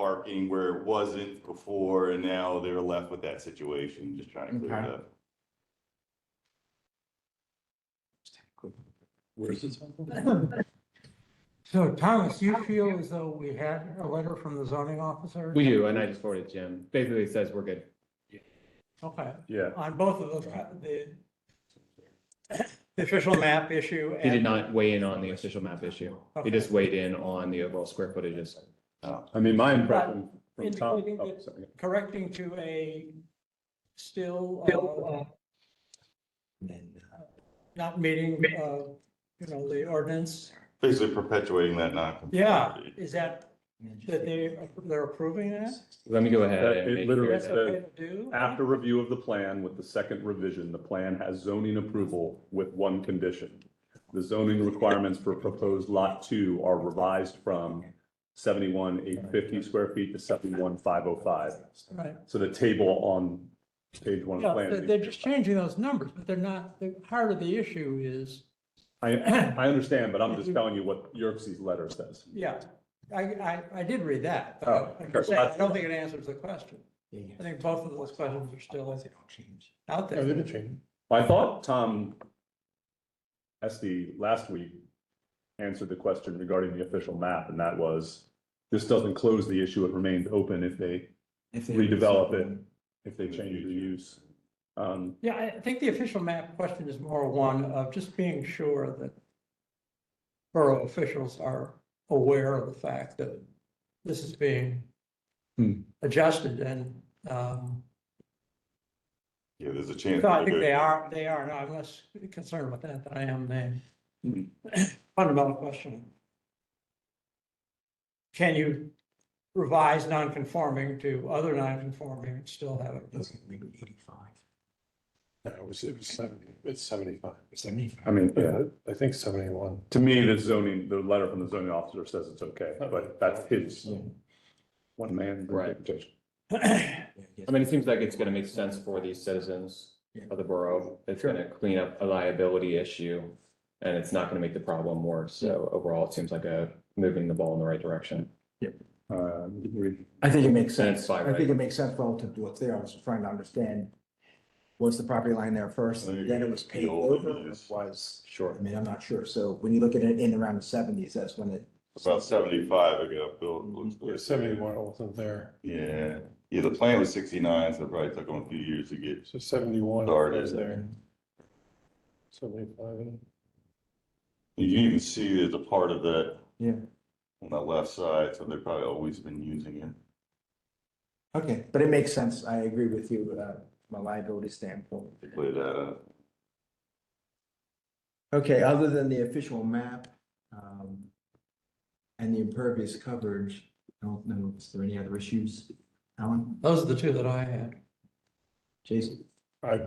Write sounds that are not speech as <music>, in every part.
parking where it wasn't before, and now they're left with that situation, just trying to clear it Okay. up. Where's this? one from? So Thomas, you feel as though we had a letter from the zoning officer? We do, and I just forwarded Jim. Basically it says we're good. Okay, Yeah. on both of those, uh, the the official map issue. He did and- not weigh in on the official map issue. He just weighed in on the overall square footages. I mean, my impression from Tom. Indicating oh, that- sorry. Correcting to a still, uh, uh, not meeting, uh, you know, the ordinance. Basically perpetuating that Yeah, non-conformity. is that, that they, they're approving that? Let me go ahead. That- and it make- literally- That's It's okay to do? After review of the plan with the second revision, the plan has zoning approval with one condition. The zoning requirements for proposed lot two are revised from seventy-one eight fifty square feet to seventy-one five oh five. Right. So the table on page one Yeah, of the they're, plan. they're just changing those numbers, but they're not, the heart of the issue is, <clears throat> I, I understand, but I'm just telling you what Yerkes's letter says. yeah, I, I, I did read that. but Oh, I'm sure. saying I don't think it answers the question. I think both of those questions are still out there. I thought Tom Estee last week answered the question regarding the official map, and that was, this doesn't close the issue, it remains open if they, redevelop it, if they change the use. Um, Yeah, I think the official map question is more one of just being sure that borough officials are aware of the fact that this is being Hmm. adjusted and, um, Yeah, there's a chance. so I think that- they are, they are, and I'm less concerned about that than I am the Mm-hmm. fundamental question. Can you revise non-conforming to other non-conforming and still have it? No, it was, it was seventy, it's seventy-five. I mean, yeah, I think seventy-one. to me, the zoning, the letter from the zoning officer says it's okay, but that's his one man. Right. interpretation. I mean, it seems like it's gonna make sense for these citizens of the borough. It's gonna clean up a liability issue. And it's not gonna make the problem worse. So overall, it seems like a moving the ball in the right direction. Um, I think it makes That's sense. fine, I think right? it makes sense relative to what's there. I was just trying to understand. Was the property line there first and then it was paved over? or Was, Sure. I mean, I'm not sure. So when you look at it in around the seventies, that's when it. About seventy-five ago, Bill. it looks like- Seventy-one wasn't there, Yeah, yeah, the plan was sixty-nine, so it probably took them a few years to get so seventy-one Started. was there. Seventy-five. You can even see there's a part of that. Yeah. On the left side, so they've probably always been using it. Okay, but it makes sense. I agree with you, uh, from a liability standpoint. They play that, uh, Okay, other than the official map, um, and the impervious coverage, I don't know, is there any other issues? Alan, <clears throat> Those are the two that I had. Jason, I,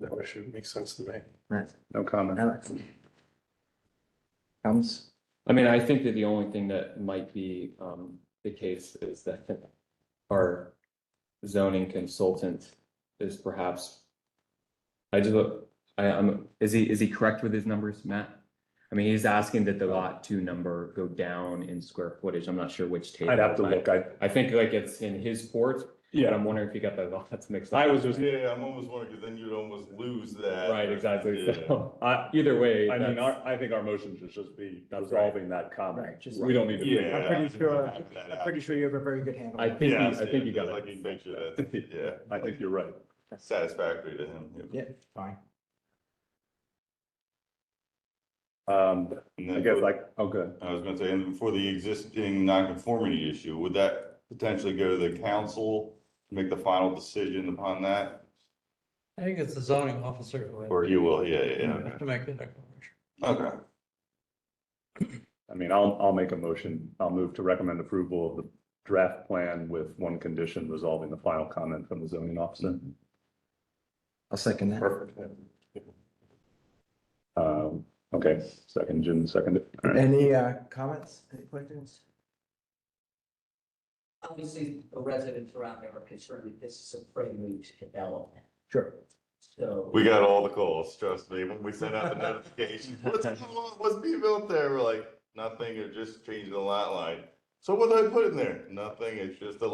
that issue makes sense to me. Matt, No comment. Alex? Thomas? I mean, I think that the only thing that might be um the case is that our zoning consultant is perhaps. I just, I am, is he, is he correct with his numbers, Matt? I mean, he's asking that the lot two number go down in square footage. I'm not sure which table. I'd have to look, I, I think like it's in his port, but yeah, I'm wondering if he got the <laughs> lots mixed up. I was just, yeah, I'm almost wondering, because then you'd almost lose that. Right, exactly. Yeah. So uh, I, either way. I mean, that's- our, I think our motion should just be That's right. resolving that comment. Right, just- We don't need to. Yeah. I'm pretty sure, I can I'm pretty sure you have a very good handle. I on it. think, he- Yeah, I think you yeah, got I it. can make sure that, yeah, <laughs> I think you're right. satisfactory to him. yeah. Yeah, fine. Um, And I then guess for- like, oh, good. I was gonna say, and for the existing nonconformity issue, would that potentially go to the council, to make the final decision upon that? I think it's the zoning officer who. had- Or you will, yeah, yeah, yeah, To make the declaration. okay. okay. I mean, I'll, I'll make a motion. I'll move to recommend approval of the draft plan with one condition resolving the final comment from the zoning officer. I'll second that. Perfect. Um, okay, second, Jim, second. All right. Any uh, comments, any questions? obviously, the residents around there are concerned that this is a prelude to development, Sure. so. We got all the calls, trust me, when we sent out the <laughs> notification, what's going on, what's being built there, we're like, nothing, or just changing the lot line. So what do I put in there? Nothing, it's just a